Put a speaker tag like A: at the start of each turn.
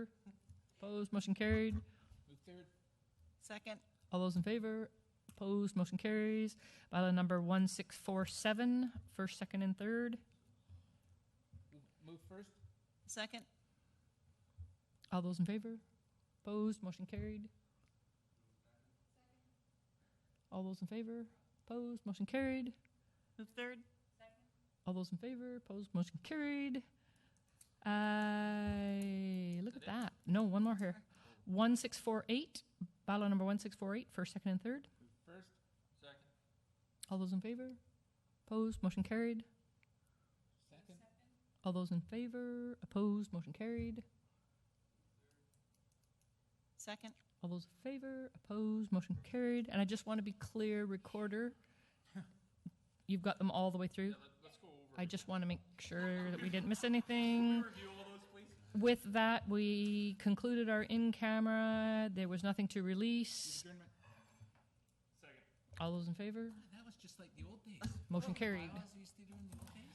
A: Opposed, motion carried.
B: Second,
A: All those in favor? Opposed, motion carries. Bylaw number 1647, first, second, and third.
B: second,
A: All those in favor? Opposed, motion carried. All those in favor? Opposed, motion carried.
B: move third,
A: All those in favor? Opposed, motion carried. I, look at that. No, one more here. 1648, bylaw number 1648, first, second, and third.
C: First? Second.
A: All those in favor? Opposed, motion carried.
C: Second?
A: All those in favor? Opposed, motion carried.
B: second,
A: All those in favor? Opposed, motion carried. And I just want to be clear, recorder, you've got them all the way through.
C: Let's go over.
A: I just want to make sure that we didn't miss anything.
C: Review all those, please.
A: With that, we concluded our in-camera. There was nothing to release.
C: Adjournment. Second.
A: All those in favor?
D: That was just like the old days. Remember
A: Motion
D: when
A: carried.
D: bylaws used to